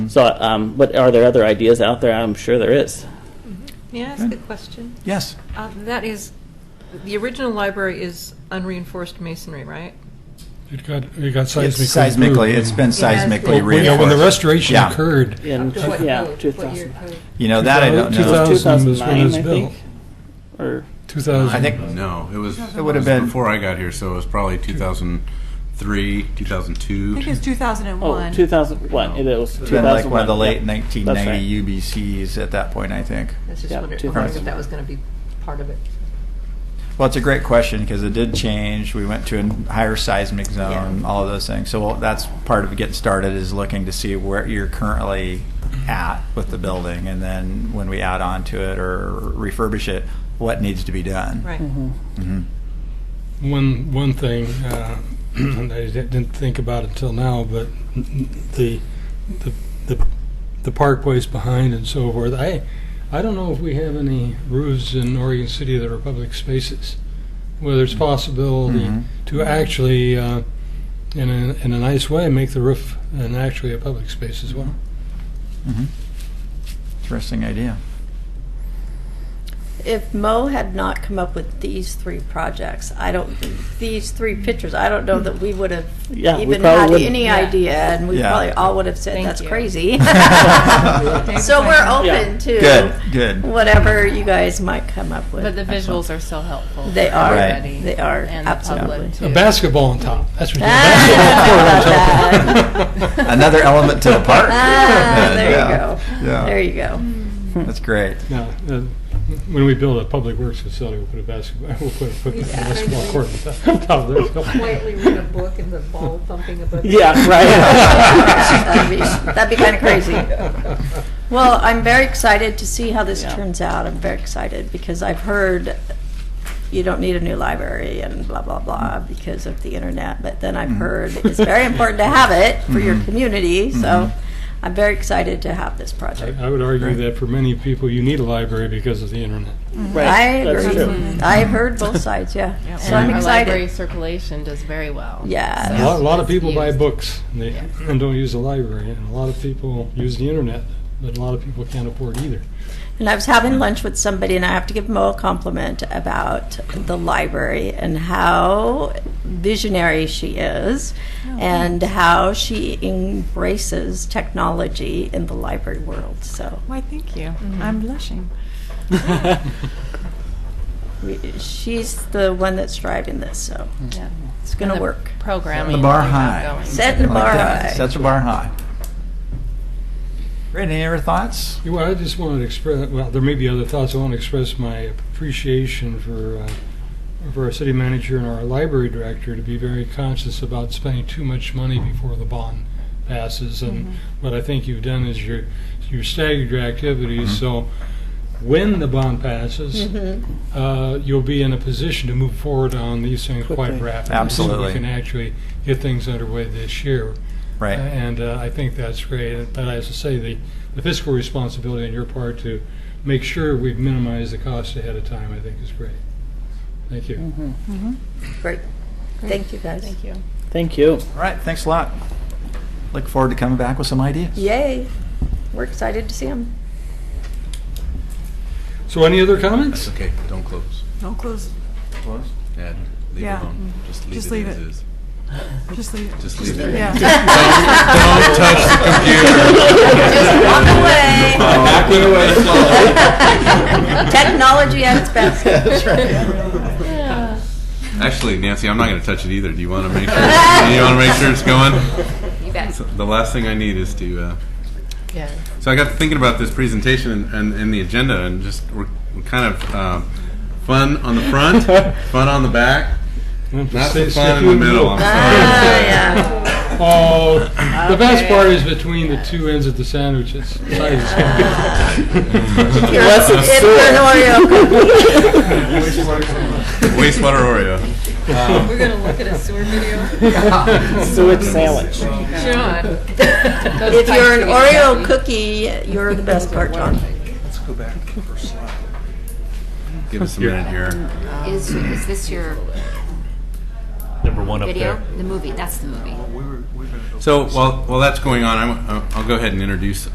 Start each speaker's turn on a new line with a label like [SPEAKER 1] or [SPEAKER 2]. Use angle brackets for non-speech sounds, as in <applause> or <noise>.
[SPEAKER 1] So, um, but are there other ideas out there? I'm sure there is.
[SPEAKER 2] May I ask a question?
[SPEAKER 3] Yes.
[SPEAKER 2] Uh, That is, the original library is unreinforced masonry, right?
[SPEAKER 4] It got, it got
[SPEAKER 3] It's
[SPEAKER 4] seismically.
[SPEAKER 3] Seismically,
[SPEAKER 4] improved.
[SPEAKER 3] it's been
[SPEAKER 2] has been-
[SPEAKER 3] seismically
[SPEAKER 4] Well, you know, When the
[SPEAKER 3] reinforced.
[SPEAKER 4] restoration
[SPEAKER 3] Yeah.
[SPEAKER 4] occurred,
[SPEAKER 1] In,
[SPEAKER 2] Up to what
[SPEAKER 1] yeah,
[SPEAKER 2] code? What year
[SPEAKER 1] 2000.
[SPEAKER 2] code?
[SPEAKER 3] You know, that I don't know.
[SPEAKER 4] 2000 was when it
[SPEAKER 1] 2009,
[SPEAKER 4] was
[SPEAKER 1] I
[SPEAKER 4] built.
[SPEAKER 1] think. Or,
[SPEAKER 4] 2000.
[SPEAKER 3] I think,
[SPEAKER 5] No, it was, it
[SPEAKER 3] would've
[SPEAKER 5] was
[SPEAKER 3] been-
[SPEAKER 5] before I got here, so it was probably 2003,
[SPEAKER 6] I
[SPEAKER 5] 2002.
[SPEAKER 6] think it's
[SPEAKER 1] oh,
[SPEAKER 6] 2001.
[SPEAKER 1] 2001. It was
[SPEAKER 3] it's been like one of the
[SPEAKER 1] 2001,
[SPEAKER 3] late
[SPEAKER 1] yeah.
[SPEAKER 3] 1990 UBCs at that point, I think.
[SPEAKER 2] I was just
[SPEAKER 1] Yeah,
[SPEAKER 2] wondering
[SPEAKER 1] 2000.
[SPEAKER 2] wondering if that was going to be part of it.
[SPEAKER 3] Well, it's a great question because it did change. We went to a higher seismic zone, all of those things. So well, that's part of getting started is looking to see where you're currently at with the building, and then when we add on to it or refurbish it, what needs to be done.
[SPEAKER 2] Right.
[SPEAKER 1] Mm-hmm.
[SPEAKER 3] hmm
[SPEAKER 4] One, one thing, uh, <clears throat> and I di- didn't think about until now, but the, the, the, the parkways behind and so forth, I, I don't know if we have any roofs in Oregon City that are public spaces. Whether it's possibility
[SPEAKER 3] Mhm.
[SPEAKER 4] to actually, uh, in a, in a nice way, make the roof an actually a public space as well.
[SPEAKER 3] hmm Interesting idea.
[SPEAKER 7] If Mo had not come up with these three projects, I don't, these three pictures, I don't know that we would have
[SPEAKER 1] Yeah, we
[SPEAKER 7] even
[SPEAKER 1] probably
[SPEAKER 7] had
[SPEAKER 1] wouldn't.
[SPEAKER 7] any
[SPEAKER 2] Yeah.
[SPEAKER 7] idea, and we
[SPEAKER 3] Yeah.
[SPEAKER 7] probably all would have said,
[SPEAKER 2] Thank
[SPEAKER 7] that's
[SPEAKER 2] you."
[SPEAKER 7] crazy. <laughs>
[SPEAKER 3] Thanks,
[SPEAKER 7] So we're
[SPEAKER 1] Yeah.
[SPEAKER 7] open
[SPEAKER 3] Good,
[SPEAKER 7] to
[SPEAKER 3] good.
[SPEAKER 7] whatever you guys might come up with.
[SPEAKER 8] But the
[SPEAKER 3] Excellent.
[SPEAKER 8] visuals are so helpful.
[SPEAKER 7] They
[SPEAKER 8] for
[SPEAKER 7] are.
[SPEAKER 8] everybody
[SPEAKER 7] They are,
[SPEAKER 8] And the public,
[SPEAKER 7] absolutely.
[SPEAKER 4] A
[SPEAKER 8] too.
[SPEAKER 4] basketball on top, that's
[SPEAKER 7] <laughs>
[SPEAKER 4] what you, a
[SPEAKER 7] Ah,
[SPEAKER 4] basketball court
[SPEAKER 3] <laughs>
[SPEAKER 4] on top. <laughs>
[SPEAKER 3] Another element to the park. <laughs>
[SPEAKER 7] Ah, there
[SPEAKER 3] Yeah,
[SPEAKER 7] you go.
[SPEAKER 3] yeah.
[SPEAKER 7] There you go.
[SPEAKER 3] That's great.
[SPEAKER 4] Now, uh, when we build a public works facility, we'll put a basketball, we'll put a put a basketball court on top <laughs> of there.
[SPEAKER 2] Quietly read a book and the ball thumping above.
[SPEAKER 1] yeah,
[SPEAKER 7] <laughs>
[SPEAKER 1] right.
[SPEAKER 7] That'd be, that'd be kind of crazy. Well, I'm very excited to see how this
[SPEAKER 1] Yeah.
[SPEAKER 7] turns out. I'm very excited because I've heard you don't need a new library and blah, blah, blah because of the internet. But then I've
[SPEAKER 3] Mhm.
[SPEAKER 7] heard it's very important to have it for your
[SPEAKER 3] Mhm.
[SPEAKER 7] community.
[SPEAKER 3] Mhm.
[SPEAKER 7] So I'm very excited to have this project.
[SPEAKER 4] I I would argue that for many people, you need a library because of the internet.
[SPEAKER 1] Right,
[SPEAKER 7] I
[SPEAKER 1] that's
[SPEAKER 7] agree.
[SPEAKER 1] true.
[SPEAKER 7] I've heard both sides, yeah. So I'm
[SPEAKER 8] And our library
[SPEAKER 7] excited.
[SPEAKER 8] circulation does very well.
[SPEAKER 4] A
[SPEAKER 7] Yeah.
[SPEAKER 4] lot, a lot of people buy
[SPEAKER 8] Used.
[SPEAKER 4] books and they- and don't use the library, and a lot of people use the internet, but a lot of people can't afford either.
[SPEAKER 7] And I was having lunch with somebody, and I have to give Mo a compliment about the library and how visionary she is, and how she embraces technology in the library world. So
[SPEAKER 6] Why, thank you.
[SPEAKER 7] Mm-hmm.
[SPEAKER 6] I'm blushing.
[SPEAKER 7] we, she's the one that's driving this. So
[SPEAKER 8] Yeah.
[SPEAKER 7] it's going to
[SPEAKER 8] And the
[SPEAKER 7] work.
[SPEAKER 8] Programming.
[SPEAKER 3] The bar
[SPEAKER 8] that we have
[SPEAKER 3] high.
[SPEAKER 8] going.
[SPEAKER 7] Setting the
[SPEAKER 3] I like
[SPEAKER 7] bar
[SPEAKER 3] that.
[SPEAKER 7] high.
[SPEAKER 3] Sets the bar high. Great. Any other thoughts?
[SPEAKER 4] You know, I just wanted to express, well, there may be other thoughts. I want to express my appreciation for, uh, for our city manager and our library director to be very conscious about spending too much money before the bond passes. And what I think you've done is you're, you staggered your activities. So when the bond passes,
[SPEAKER 7] Mm-hmm.
[SPEAKER 4] uh, you'll be in a position to move forward on these things quite
[SPEAKER 1] Quickly.
[SPEAKER 4] rapidly. So
[SPEAKER 3] Absolutely.
[SPEAKER 4] we can actually get things underway this year.
[SPEAKER 3] Right.
[SPEAKER 4] And uh, I think that's great. But as I say, the, the fiscal responsibility on your part to make sure we've minimized the cost ahead of time, I think is great. Thank you.
[SPEAKER 2] Mm-hmm.
[SPEAKER 6] Mm-hmm.
[SPEAKER 7] Great. Thank you guys.
[SPEAKER 8] Thank you.
[SPEAKER 1] Thank you.
[SPEAKER 3] All right. Thanks a lot. Look forward to coming back with some ideas. <laughs>
[SPEAKER 7] Yay! We're excited to see him.
[SPEAKER 4] So, any other comments?
[SPEAKER 5] It's okay, don't close.
[SPEAKER 6] Don't close.
[SPEAKER 5] Ed, leave it
[SPEAKER 6] Yeah.
[SPEAKER 5] alone. Just leave
[SPEAKER 6] Just
[SPEAKER 5] it
[SPEAKER 6] leave
[SPEAKER 5] as
[SPEAKER 6] it.
[SPEAKER 5] is.
[SPEAKER 6] Just leave it.
[SPEAKER 5] Just leave it. <laughs>
[SPEAKER 6] Yeah.
[SPEAKER 5] Don't touch the computer.
[SPEAKER 7] Just walk away.
[SPEAKER 5] Back it away slowly.
[SPEAKER 7] Technology at its best.
[SPEAKER 5] Actually, Nancy, I'm not going to touch it either. Do you want to make sure? you want to make sure it's
[SPEAKER 6] <laughs>
[SPEAKER 5] going?
[SPEAKER 8] You bet.
[SPEAKER 5] So the last thing I need is to. Uh,
[SPEAKER 8] Yeah.
[SPEAKER 5] So I got to thinking about this presentation and, and, and the agenda, and just we're, we're kind of um, fun on the front, fun on the back, not so
[SPEAKER 4] Stay- stay
[SPEAKER 5] fun in the middle. I'm sorry.
[SPEAKER 7] Ah, yeah.
[SPEAKER 2] <laughs>
[SPEAKER 4] Oh, the best part is between the two ends of the sandwiches.
[SPEAKER 1] Unless it's
[SPEAKER 7] If you're an Oreo <laughs>
[SPEAKER 5] Wastewater Oreo.
[SPEAKER 2] We're going to look at a <laughs> sewer
[SPEAKER 7] <laughs>
[SPEAKER 2] video.
[SPEAKER 1] <laughs> Sewage
[SPEAKER 2] <laughs>
[SPEAKER 1] sandwich.
[SPEAKER 2] John.
[SPEAKER 7] If you're an Oreo cookie, you're the best part, John.
[SPEAKER 5] Give us a minute here.
[SPEAKER 9] Is, is this your,
[SPEAKER 4] The
[SPEAKER 3] number one up
[SPEAKER 9] Video?
[SPEAKER 3] there.
[SPEAKER 9] The movie, that's the movie.
[SPEAKER 5] So while, while that's going on, I'm, uh, I'll go ahead and introduce